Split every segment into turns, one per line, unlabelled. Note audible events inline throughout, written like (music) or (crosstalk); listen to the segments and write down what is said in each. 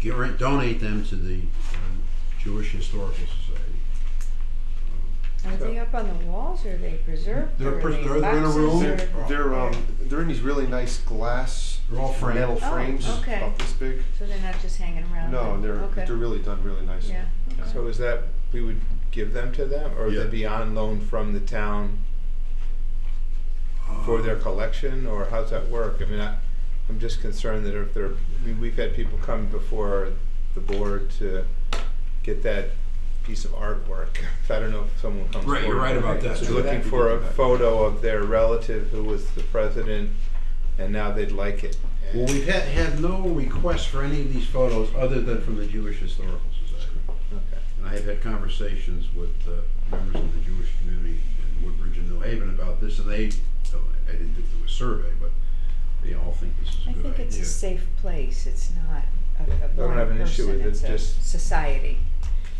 give, or uh, donate them to the um, Jewish Historical Society.
Are they up on the walls or are they preserved?
They're
or are
pres-
they
they're- they're in a
boxes
room. They're-
or-
They're um, they're in these really nice glass
They're all framed.
metal
Oh,
frames
okay.
about this big.
So they're not just hanging around?
No,
then?
they're
Okay.
they're really done really nicely.
Yeah. okay.
So is that, we would give them to them, or
Yeah.
they'd be on loan from the town
Uh,
for their collection, or how's that work? I mean, I, I'm just concerned that if they're, I mean, we've had people come before the board to get that piece of artwork. (laughs) I don't know if someone comes forward.
Right, you're right about that.
They're
So
looking
that-
for a photo of their relative who was the president, and now they'd like it.
Well, we've had, had no requests for any of these photos other than from the Jewish Historical Society.
Okay.
And I have had conversations with uh, members of the Jewish community in Woodbridge and New Haven about this, and they, I didn't do a survey, but they all think this is a
I
good idea.
think it's a safe place. It's not a, a
don't
one
have an issue
person,
with it,
it's a
just-
society.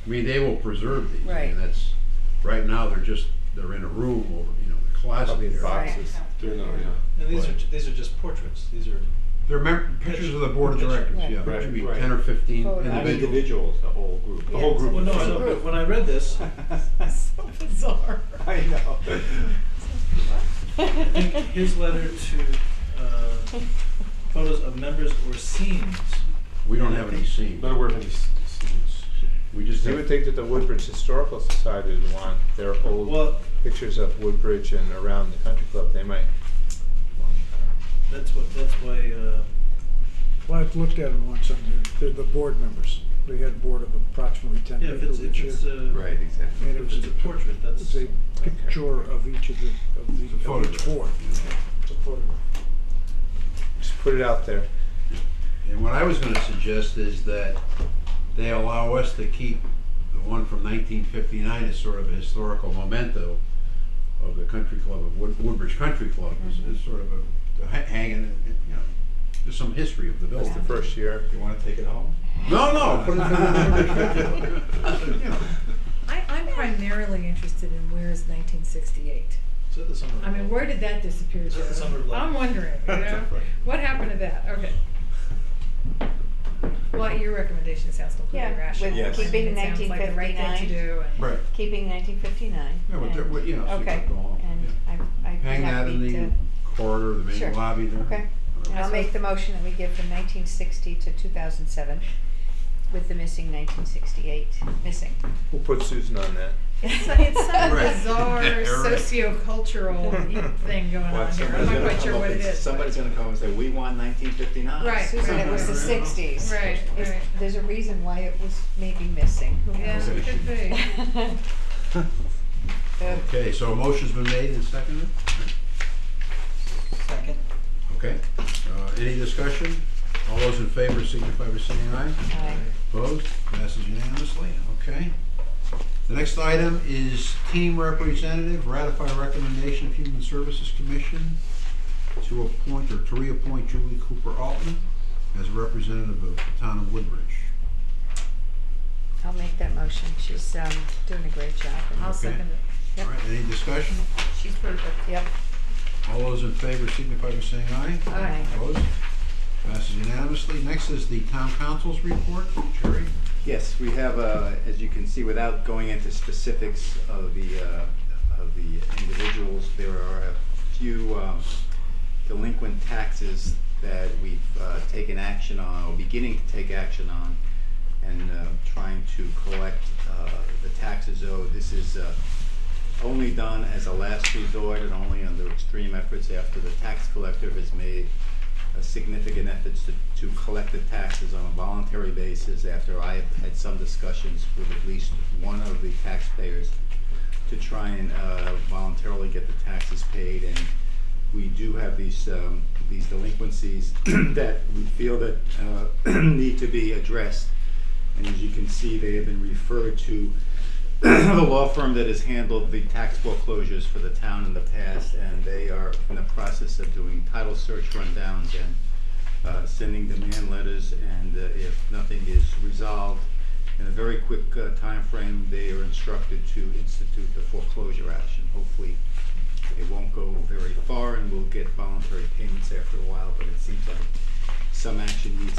I mean, they will preserve these. I
Right.
mean, that's, right now, they're just, they're in a room over, you know, in a closet
Probably in
there.
boxes.
They're not, yeah.
And these are,
Right.
ju- these are just portraits, these are.
They're mem- pictures of the board of directors,
Right.
yeah,
Right,
there should be
right.
ten or fifteen
Photos. Not
individuals.
individuals, the whole group.
The whole group.
Well, no, I
(laughs) It's a
know,
group.
but when I read (laughs) this,
So bizarre.
(laughs) I
(laughs)
know.
I think his letter to, uh, photos of members or scenes.
We don't have any scenes,
Not aware of any s- scenes.
we just
You would
have,
think that the Woodbridge Historical Society would want their old
Well,
pictures of Woodbridge and around the country club, they might.
that's what, that's why, uh,
Well, I've looked at them once, and they're, they're the board members. We had a board of approximately ten
yeah, if
people
it's, if
each year.
it's uh, a.
exactly.
And it
If
was
it's a portrait, that's.
It's a picture of each of the, of
it's a
the, of each board.
photograph. you know.
It's a photograph.
Just put it out there.
And what I was gonna suggest is that they allow us to keep the one from nineteen fifty-nine as sort of a historical memento of the country club, of Wood- Woodbridge Country Club, is, is sort of a, to ha- hanging, you know, just some history of the
That's
building.
the first year.
You wanna take
(laughs)
it home?
No,
Oh.
(laughs)
(laughs)
no, put it in
(laughs)
(laughs) the Woodbridge Country Club. You know.
I, I'm primarily interested in where is 1968.
Is that the summer?
I mean, where did that disappear
Is
to?
that the summer of love?
I'm wondering,
(laughs)
you know? What happened to that? Okay. Well, your recommendation sounds completely
Yeah,
rational.
with
I mean,
keeping
it sounds like the right thing
1959.
to do. and-
Right.
Keeping nineteen fifty-nine.
Yeah, but they're- well, you know, so you
Okay,
could go on,
and I, I'd be
Hang that in the
happy to,
corridor, the
Sure.
main lobby there.
okay. And I'll make the motion that we give from nineteen sixty to two thousand seven with the missing nineteen sixty-eight, missing.
We'll put Susan on that.
It's, it's some
Right.
bizarre
Yeah, right.
sociocultural thing going on here. I'm not quite sure what it is. but-
Somebody's gonna come and say, we won nineteen fifty-nine.
Right,
Susan, it was the
right.
sixties.
Right, right.
There's a reason why it was maybe missing, who
Yeah,
knows?
it could be. (laughs)
Uh,
Okay, so a motion's been made and seconded,
Second.
okay. Uh, any discussion? All those in favor signify by saying aye.
aye.
Opposed? Passes unanimously, okay. The next item is team representative, ratify recommendation of Human Services Commission to appoint or to reappoint Julie Cooper Altman as a representative of the town of Woodbridge.
I'll make that motion, she's, um, doing a great job.
I'll
Okay.
second it.
All right, any discussion?
She's perfect.
Yep,
All those in favor signify by saying aye.
aye.
Opposed? Passes unanimously. Next is the town council's report. Jerry?
Yes, we have, uh, as you can see, without going into specifics of the, uh, of the individuals, there are a few um, delinquent taxes that we've uh, taken action on, or beginning to take action on, and uh, trying to collect uh, the taxes owed. This is uh, only done as a last resort and only under extreme efforts after the tax collector has made a significant efforts to, to collect the taxes on a voluntary basis after I have had some discussions with at least one of the taxpayers to try and uh, voluntarily get the taxes paid. And we do have these, um, these delinquencies (clears throat) that we feel that uh, (clears throat) need to be addressed. And as you can see, they have been referred to the law firm that has handled the tax foreclosures for the town in the past, and they are in the process of doing title search rundowns and uh, sending demand letters, and uh, if nothing is resolved in a very quick uh, timeframe, they are instructed to institute the foreclosure action. Hopefully, it won't go very far, and we'll get voluntary payments after a while, but it seems like some action needs